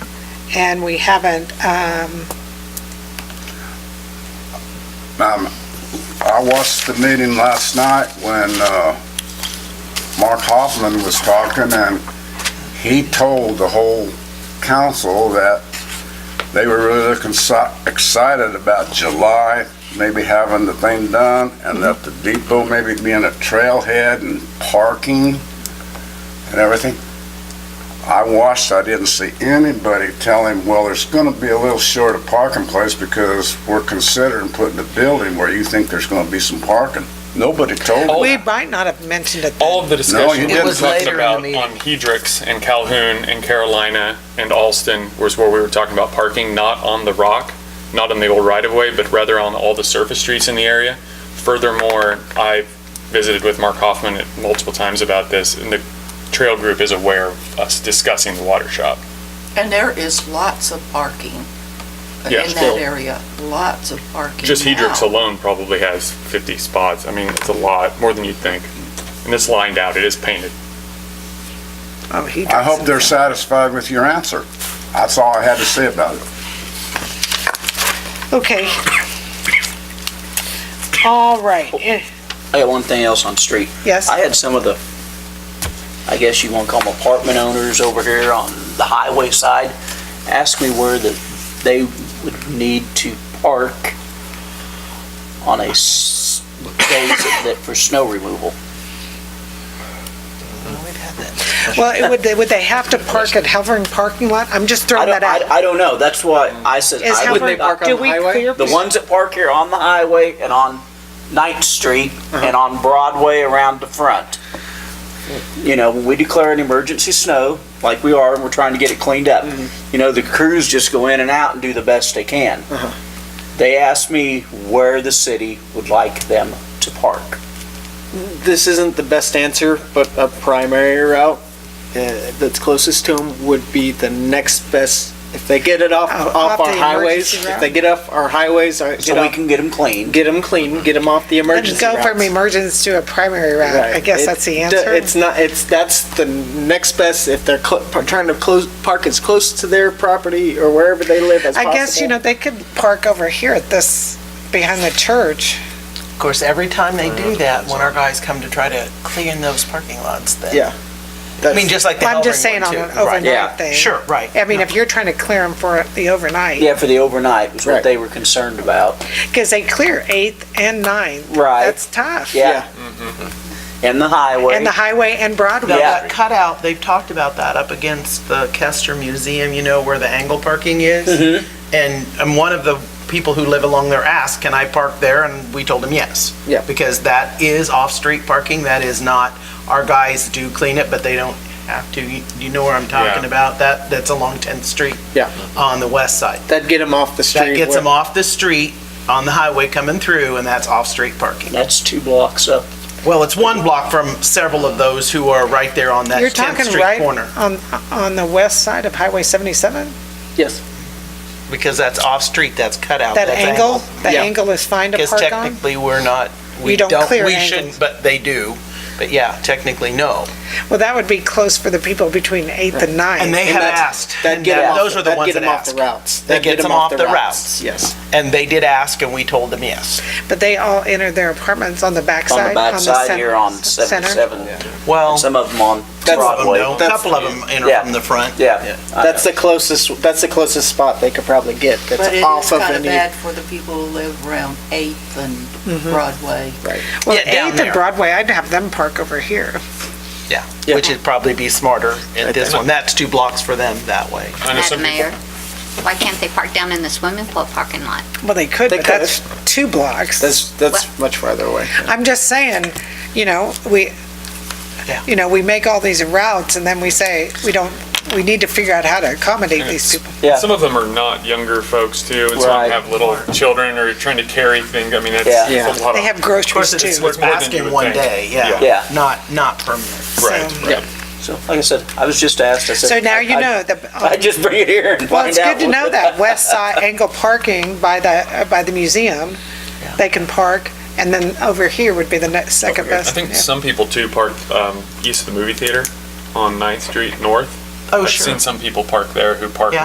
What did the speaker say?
and we haven't, um, Um, I watched the meeting last night when uh, Mark Hoffman was talking, and he told the whole council that they were really looking so- excited about July, maybe having the thing done, and that the depot maybe being a trailhead and parking and everything. I watched, I didn't see anybody tell him, well, there's gonna be a little short of parking place because we're considering putting a building where you think there's gonna be some parking. Nobody told me. Oh, we might not have mentioned it. All of the you discussion we didn't. It were was talking later in the about meeting. on Hedrix and Calhoun and Carolina and Alston was where we were talking about parking, not on the rock, not on the old right-of-way, but rather on all the surface streets in the area. Furthermore, I visited with Mark Hoffman at- multiple times about this, and the trail group is aware of us discussing the water shop. And there is lots of parking in Yes, that well- area, lots of parking. Just Hedrix now. alone probably has 50 spots. I mean, it's a lot, more than you'd think. And it's lined out, it is painted. Oh, he I hope doesn't. they're satisfied with your answer. That's all I had to say about it. Okay. All right, Eh, I got one thing else on the street. yes, I had some of the, I guess you want to call them apartment owners over here on the highway side, ask me where the, they would need to park on a s- days that for snow removal. well, it would, they- would they have to park at Halvern parking lot? I'm just I throwing don't, that I, out. I don't know, that's why I said. Is I would Halvern, not- do we clear? The ones that park here on the highway and on Ninth Street Uh-huh. and on Broadway around the front. You know, when we declare an emergency snow, like we are, and we're trying to get it cleaned up, Mm-hmm. you know, the crews just go in and out and do the best they can. Uh-huh. They asked me where the city would like them to park. this isn't the best answer, but a primary route uh, that's closest to them would be the next best, if they get it off, Off- off off our the highways, emergency route? if they get off our highways, or So we get can get them clean. them clean, get them off the Let's emergency go routes. from emergence to a primary route, I Right. guess It- that's the d- answer. It's not, it's, that's the next best, if they're cl- par- trying to close, park as close to their property or wherever they live as I possible. guess, you know, they could park over here at this, behind the church. Of course, every time they do that, when our guys come to try to clean those parking lots, then. Yeah. I mean, just like the I'm just Hellring saying one, on an too. Right. yeah, overnight thing. Sure, right. I mean, if you're trying to clear them for the overnight. Yeah, for the overnight was what Right. they were concerned about. Because they clear 8th and ninth. Right. That's tough. Yeah. Mm-hmm. And the highway. And the highway and Now, Broadway. that cutout, they've talked about that up against the Kester Museum, you know, where the angle parking is? And, and one of the people who live along there asked, can I park there? And we told him yes. Yeah. Because that is off-street parking, that is not, our guys do clean it, but they don't have to. You you know where I'm talking Yeah. about? That, that's along 10th Street. Yeah. On the west side. That'd get them off the street. That gets where- them off the street, on the highway coming through, and that's off-street parking. That's two blocks up. Well, it's one block from several of those who are right there on that You're 10th talking Street right corner, on, on the west side of Highway 77? Yes. because that's off-street, that's cut out. That that's angle, that Yeah. angle is fine to Because park on? technically, we're not, You we don't don't, clear we angles. shouldn't, but they do. But yeah, technically, no. Well, that would be close for the people between 8th and And 9th. they have that's- asked, That'd and get 'em that- off those the- are the that'd ones get that 'em off the asked. routes. That That'd gets get 'em them off the routes. Yes. And they did ask, and we told them yes. But they all enter their apartments on the on backside. the backside cen- here on center. 77. Well, some Some of them on of them Broadway. don't, a That's- couple of them yeah. enter from the front. Yeah. I That's the closest, that's the closest spot they could probably get that's But it is off of kind of any. bad for the people who live around Eighth Mm-hmm. and Broadway. Well, Yeah, down 8th and there. Broadway, I'd have them park over here. Yeah, which would probably be smarter at this one. That's two blocks for them that way. I know some people- Madam Mayor, why can't they park down in the swimming pool parking lot? Well, they could, They but that's two blocks. That's, that's much farther away. I'm just saying, you know, we, Yeah. you know, we make all these routes and then we say, we don't, we need to figure out how to accommodate these people. Yeah. Some of them are not younger folks too, and some Right. have little children or trying to carry things. I mean, that's Yeah. it's a lot They of. have groceries It's too. what's more than you asking would one think. day, yeah. Yeah. Not, not permanent. Right, So- right. So, like I said, I was just asked, I said. So now I- you I- know the. I just bring it here and Well, find it's out. good to know that, west side angle parking by the, uh, by the museum, they can park, and then over here would be the next, second I best. think yeah. some people too park um, east of the movie theater on 9th Street North. Oh, I've sure. seen some people park there who park Yeah.